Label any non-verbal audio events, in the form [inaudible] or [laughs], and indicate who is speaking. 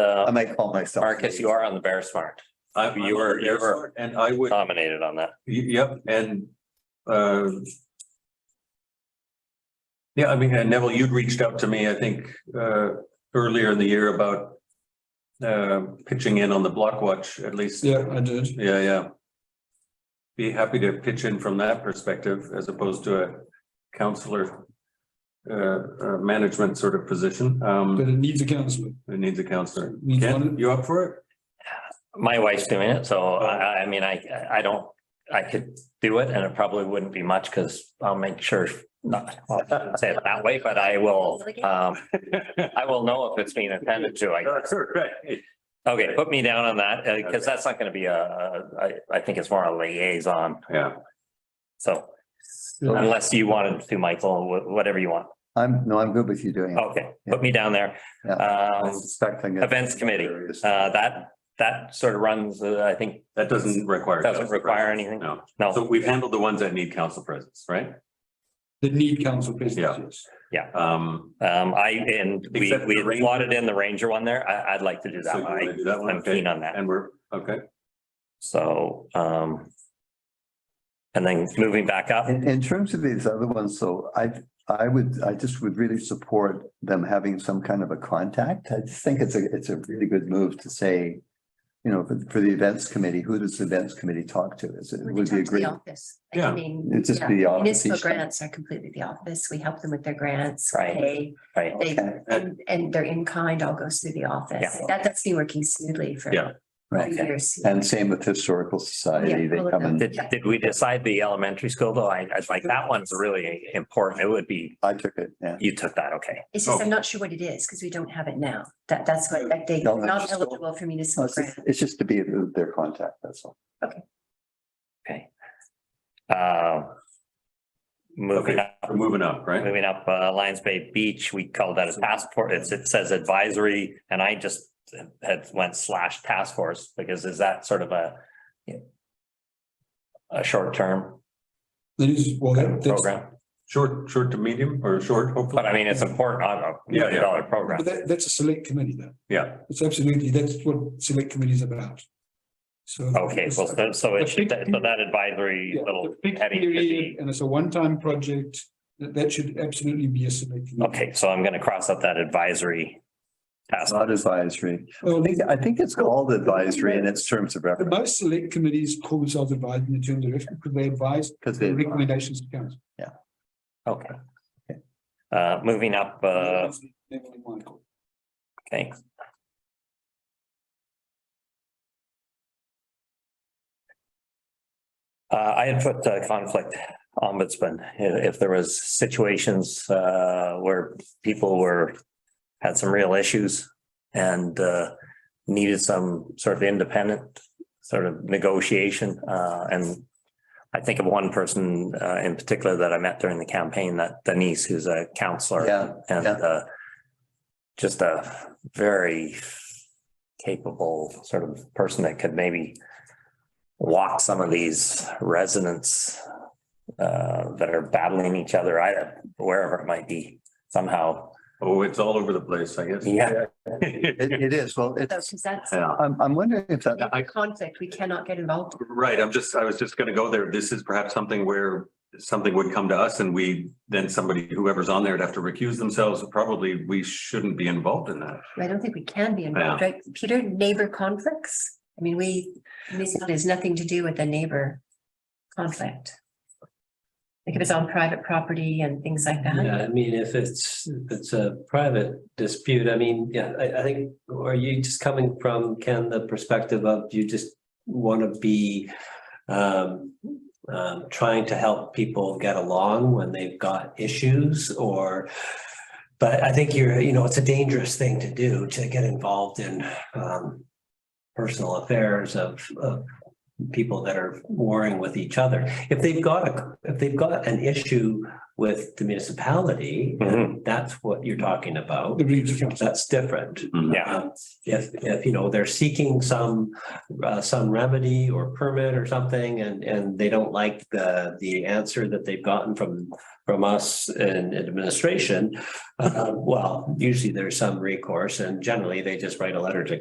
Speaker 1: I might call myself.
Speaker 2: Uh, Marcus, you are on the Bear Smart,
Speaker 3: I,
Speaker 2: You were- you Uh, were-
Speaker 3: And I would, y-
Speaker 2: nominated on that.
Speaker 3: yep, and, uh. Yeah, I mean, and Neville, you'd reached out to me, I think, uh, earlier in the year about. Uh, pitching in on the block watch, at least.
Speaker 4: Yeah, I did.
Speaker 3: Yeah, yeah. Be happy to pitch in from that perspective as opposed to a counselor. Uh, uh, management sort of position,
Speaker 4: But
Speaker 3: um,
Speaker 4: it needs a counselor.
Speaker 3: who needs a counselor.
Speaker 4: Needs
Speaker 3: Ken,
Speaker 4: one.
Speaker 3: you up for
Speaker 2: [laughs]
Speaker 3: it?
Speaker 2: My wife's doing it, so I, I mean, I, I don't, I could do it and it probably wouldn't be much because I'll make sure, not, well, I shouldn't say it that way, but I will, um, I will know if it's being intended to, I guess.
Speaker 3: Right.
Speaker 2: Okay, put me down on that, because that's not going to be a, a- I, I think it's more a liaison,
Speaker 3: Yeah,
Speaker 2: so unless you wanted to, Michael, wh- whatever you want.
Speaker 1: I'm, no, I'm good with you doing it.
Speaker 2: Okay, put me down there.
Speaker 1: Yeah. I
Speaker 2: Um,
Speaker 1: was expecting it.
Speaker 2: events committee, uh, that, that sort of runs, uh, I think,
Speaker 3: that doesn't require.
Speaker 2: Doesn't
Speaker 3: council
Speaker 2: require
Speaker 3: presence,
Speaker 2: anything.
Speaker 3: No, so
Speaker 2: no,
Speaker 3: we've handled the ones that need council presence, right?
Speaker 4: They need council business,
Speaker 3: Yeah.
Speaker 4: yes.
Speaker 3: Um.
Speaker 2: um, I, and we,
Speaker 3: Except the
Speaker 2: we
Speaker 3: Ranger.
Speaker 2: slotted in the Ranger one there. I, I'd like to do
Speaker 3: so
Speaker 2: that
Speaker 3: you wanna
Speaker 2: one.
Speaker 3: do that
Speaker 2: I-
Speaker 3: one,
Speaker 2: I'm
Speaker 3: okay.
Speaker 2: keen on that.
Speaker 3: And we're, okay,
Speaker 2: So, um, and then moving back up,
Speaker 1: In, in terms of these other ones, so I, I would, I just would really support them having some kind of a contact. I just think it's a, it's a really good move to say, you know, for, for the events committee, who does the events committee talk to? Is it,
Speaker 5: We
Speaker 1: would
Speaker 5: can
Speaker 1: be a
Speaker 5: talk to the
Speaker 1: great,
Speaker 5: office. Like,
Speaker 3: Yeah.
Speaker 5: I mean.
Speaker 1: It'd just
Speaker 5: yeah.
Speaker 1: be the office
Speaker 5: Municipal
Speaker 1: each time.
Speaker 5: grants are completely the office. We help them with their grants.
Speaker 2: Right.
Speaker 5: They,
Speaker 2: right?
Speaker 5: they,
Speaker 1: Okay.
Speaker 5: and, and their in kind all goes through the office.
Speaker 2: Yeah.
Speaker 5: That, that's been working smoothly for
Speaker 3: Yeah.
Speaker 1: right?
Speaker 5: years.
Speaker 1: And same with historical society,
Speaker 5: Yeah,
Speaker 1: they
Speaker 5: all of
Speaker 1: come
Speaker 5: them.
Speaker 1: and,
Speaker 2: Did, did we decide the elementary school though? I, I'd like, that one's really important. It would be,
Speaker 1: I took it, yeah.
Speaker 2: you took that, okay.
Speaker 5: It's
Speaker 3: Oh.
Speaker 5: just, I'm not sure what it is because we don't have it now. That, that's what, like, they're
Speaker 1: No, that's
Speaker 5: not
Speaker 1: just-
Speaker 5: eligible for
Speaker 1: No,
Speaker 5: municipal
Speaker 1: Oh, It's just-
Speaker 5: grants.
Speaker 1: it's just to be their contact, that's all.
Speaker 2: Uh, Moving
Speaker 3: Okay.
Speaker 2: up,
Speaker 3: we're moving up, right?
Speaker 2: moving up, uh, Lions Bay Beach, we call that a task force. It's, it says advisory and I just had went slash task force because is that sort of a a short term
Speaker 4: That is, well, that- that's,
Speaker 2: program?
Speaker 3: Short, short to medium or short, hopefully.
Speaker 2: But I mean, it's important on a
Speaker 3: Yeah, yeah.
Speaker 2: million dollar program.
Speaker 4: but that, that's a select committee though.
Speaker 3: Yeah,
Speaker 4: It's absolutely, that's what select committee is about. So.
Speaker 2: Okay, well, so- so it should,
Speaker 4: The big-
Speaker 2: so that advisory
Speaker 4: Yeah,
Speaker 2: little
Speaker 4: the big
Speaker 2: heading should
Speaker 4: period,
Speaker 2: be,
Speaker 4: And it's a one-time project, that, that should absolutely be a select. committee.
Speaker 2: okay, so I'm gonna cross out that advisory task.
Speaker 1: It's not advisory.
Speaker 4: Well,
Speaker 1: I think, I think it's called advisory in its terms of
Speaker 4: the
Speaker 1: reference.
Speaker 4: most select committees call themselves advising the terms of reference because they advise
Speaker 1: Because they,
Speaker 4: recommendations to council.
Speaker 2: Okay. Uh, moving up, uh,
Speaker 4: Neville and Michael.
Speaker 2: okay. Uh, I had put uh, conflict ombudsman, if, if there was situations, uh, where people were, had some real issues and, uh, needed some sort of independent sort of negotiation, uh, and I think of one person, uh, in particular that I met during the campaign, that Denise, who's a counselor.
Speaker 1: Yeah,
Speaker 2: And,
Speaker 1: yeah.
Speaker 2: uh, just a very capable sort of person that could maybe walk some of these residents uh, that are battling each other, I, wherever it might be somehow.
Speaker 3: oh, it's all over the place, I guess.
Speaker 2: Yeah.
Speaker 1: it, it is, well, it's,
Speaker 5: Because
Speaker 3: [laughs]
Speaker 5: that's
Speaker 3: Yeah.
Speaker 1: I'm, I'm wondering if that,
Speaker 3: I-
Speaker 5: a conflict we cannot get involved. in.
Speaker 3: Right, I'm just, I was just gonna go there. This is perhaps something where something would come to us and we, then somebody, whoever's on there would have to recuse themselves. Probably we shouldn't be involved in that.
Speaker 5: I don't think we can be involved, right? Peter, neighbor conflicts? I mean, we, municipal has nothing to do with the neighbor conflict. Like if it's on private property and things like
Speaker 6: Yeah,
Speaker 5: that.
Speaker 6: I mean, if it's, if it's a private dispute, I mean, yeah, I, I think, or are you just coming from, Ken, the perspective of you just want to be um, um, trying to help people get along when they've got issues or, but I think you're, you know, it's a dangerous thing to do, to get involved in um, personal affairs of, of people that are warring with each other. If they've got, a if they've got an issue with the municipality,
Speaker 2: Mhm.
Speaker 6: and that's what you're talking about.
Speaker 4: The Reeves Council.
Speaker 6: That's different.
Speaker 2: Yeah,
Speaker 6: Um, If, if, you know, they're seeking some, uh, some remedy or permit or something and, and they don't like the, the answer that they've gotten from, from us in administration, uh, well, usually there's some recourse and generally they just write a letter to